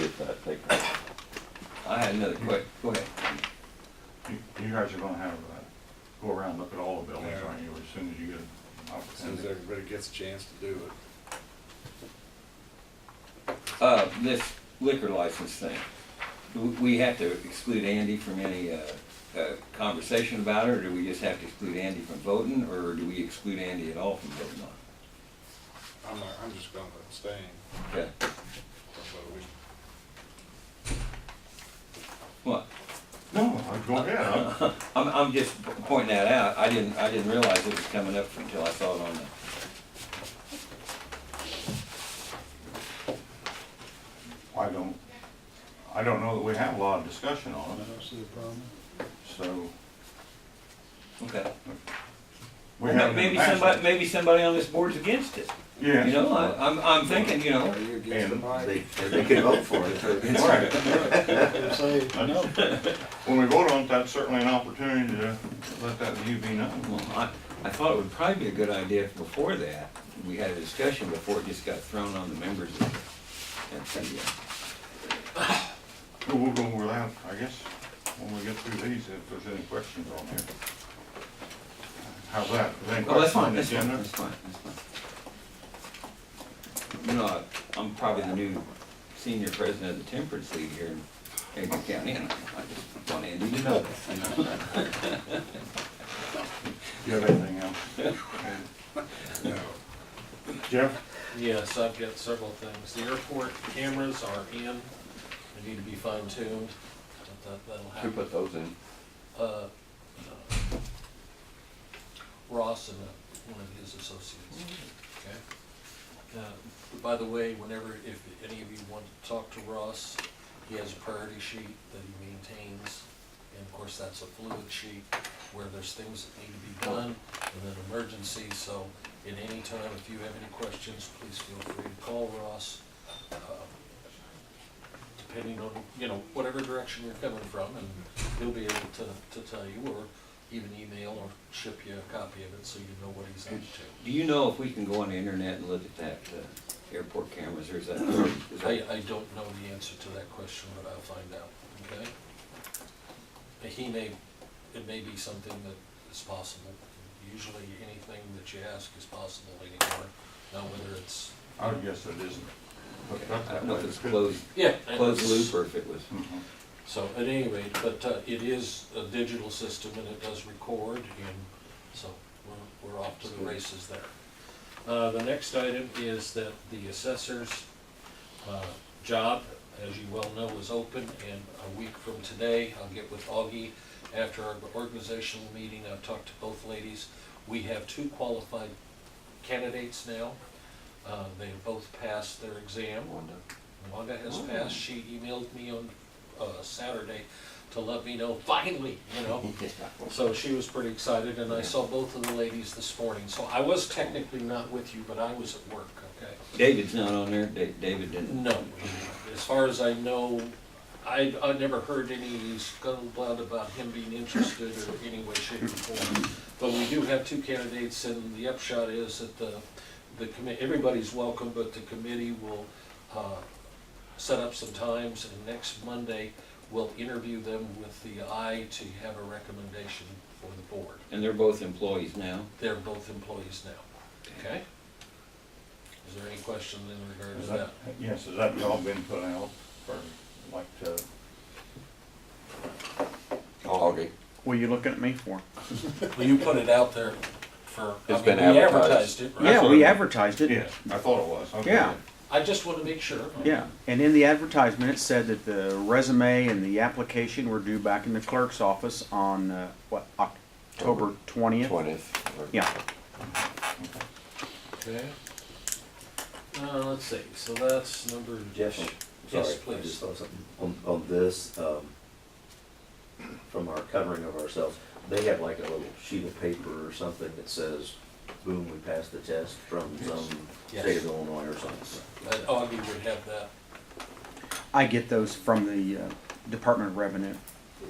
that they could. I had another quick, go ahead. You you guys are gonna have, uh, go around, look at all the buildings, Yeah. aren't you, as soon as you get an Soon as opportunity? everybody gets a chance to do it. Uh, this liquor license thing, do we have to exclude Andy from any, uh, uh, conversation about it? Or do we just have to exclude Andy from voting, or do we exclude Andy at all from voting on it? I'm not, I'm just gonna abstain. Okay, from voting. what? No, I- go ahead, I'm- I'm, I'm just p- pointing that out, I didn't, I didn't realize it was coming up until I saw it on the, I don't, I don't know that we have a lot of discussion I on it, don't see a problem. so. okay. we Well, haven't Maybe passed it. somebody, maybe somebody on this board's against it, Yeah. you know, I, I'm, I'm thinking, you know, Are you against the And mic? They, they can vote for it. if they're against All it. right. Say no. When we vote on it, that's certainly an opportunity to let that view be known. Well, I, I thought it would probably be a good idea if before that, we had a discussion before it just got thrown on the members of the, and the, uh, We'll we'll go over that, I guess, when we get through these, if there's any questions on here. How's that? Is there any oh, that's questions on fine, the that's fine, agenda? that's fine, that's fine. You know, I- I'm probably the new senior president of the temperance league here in Aiken County, and I just want Andy to know that. Do you have anything else? No. Jeff? Yes, I've got several things. The airport cameras are in, they need to be fine tuned. That'll Who happen. put those in? Uh, uh, Ross and uh, one of his associates, okay? Uh, By the way, whenever, if any of you want to talk to Ross, he has a priority sheet that he maintains. And of course, that's a fluid sheet where there's things that need to be done and then emergencies. So at any time, if you have any questions, please feel free to call Ross. uh, Depending on, you know, whatever direction you're coming from and he'll be able to, to tell you or even email or ship you a copy of it so you know what he's up to. Do you know if we can go on the internet and look at that, uh, airport cameras, or is that? is that- I, I don't know the answer to that question, but I'll find out, okay? He may, it may be something that is possible. Usually anything that you ask is possible anymore, now whether it's, I would guess Oh, it isn't. But that's I don't know if that it's way. closed, yeah. closed loop or if it was. Mhm. So at any rate, but uh, it is a digital system and it does record and so we're, we're off to the races there. Uh, the next item is that the assessor's, uh, job, as you well know, is open and a week from today, I'll get with Augie. After our organizational meeting, I've talked to both ladies. We have two qualified candidates now. Uh, they have both passed their exam. Wanda has passed, she emailed me on, uh, Saturday to let me know, finally, you know. So she was pretty excited, and I saw both of the ladies this morning, so I was technically not with you, but I was at work, okay? David's not on there, Da- David didn't. No, as far as I know, I, I never heard any scuttlebutt about him being interested or any way, shape, or form. But we do have two candidates, and the upshot is that the, the committee, everybody's welcome, but the committee will, uh, set up some times, and next Monday, we'll interview them with the eye to have a recommendation for the board. And they're both employees now. They're both employees now, okay? Is there any question in regards Is to that? that, yes, has that all been put out for, like, uh, Augie. What are you looking at me for? Well, you put it out there for, I It's mean, been we advertised advertised. it, right? Yeah, what we I- advertised it. yes, I thought it was, okay. Yeah. I just want to make sure. Yeah, and in the advertisement, it said that the resume and the application were due back in the clerk's office on, uh, what, October twentieth? Twentieth. Yeah, Okay. Uh, let's see, so that's number. Jeff? Yes, Sorry, I please. just saw something on, on this, um, from our covering of ourselves. They have like a little sheet of paper or something that says, boom, we passed the test from some Yes. state of Illinois or something. Uh, Augie would have that. I get those from the uh, Department of Revenue.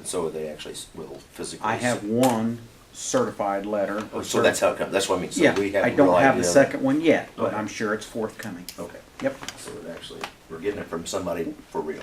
So they actually s- will physically. I have one certified letter. Oh, So that's how it comes, that's what I mean, so Yeah, we have. I a don't real have the idea. second one yet, but Okay. I'm sure it's forthcoming. Okay, Yep. so it actually, we're getting it from somebody for real.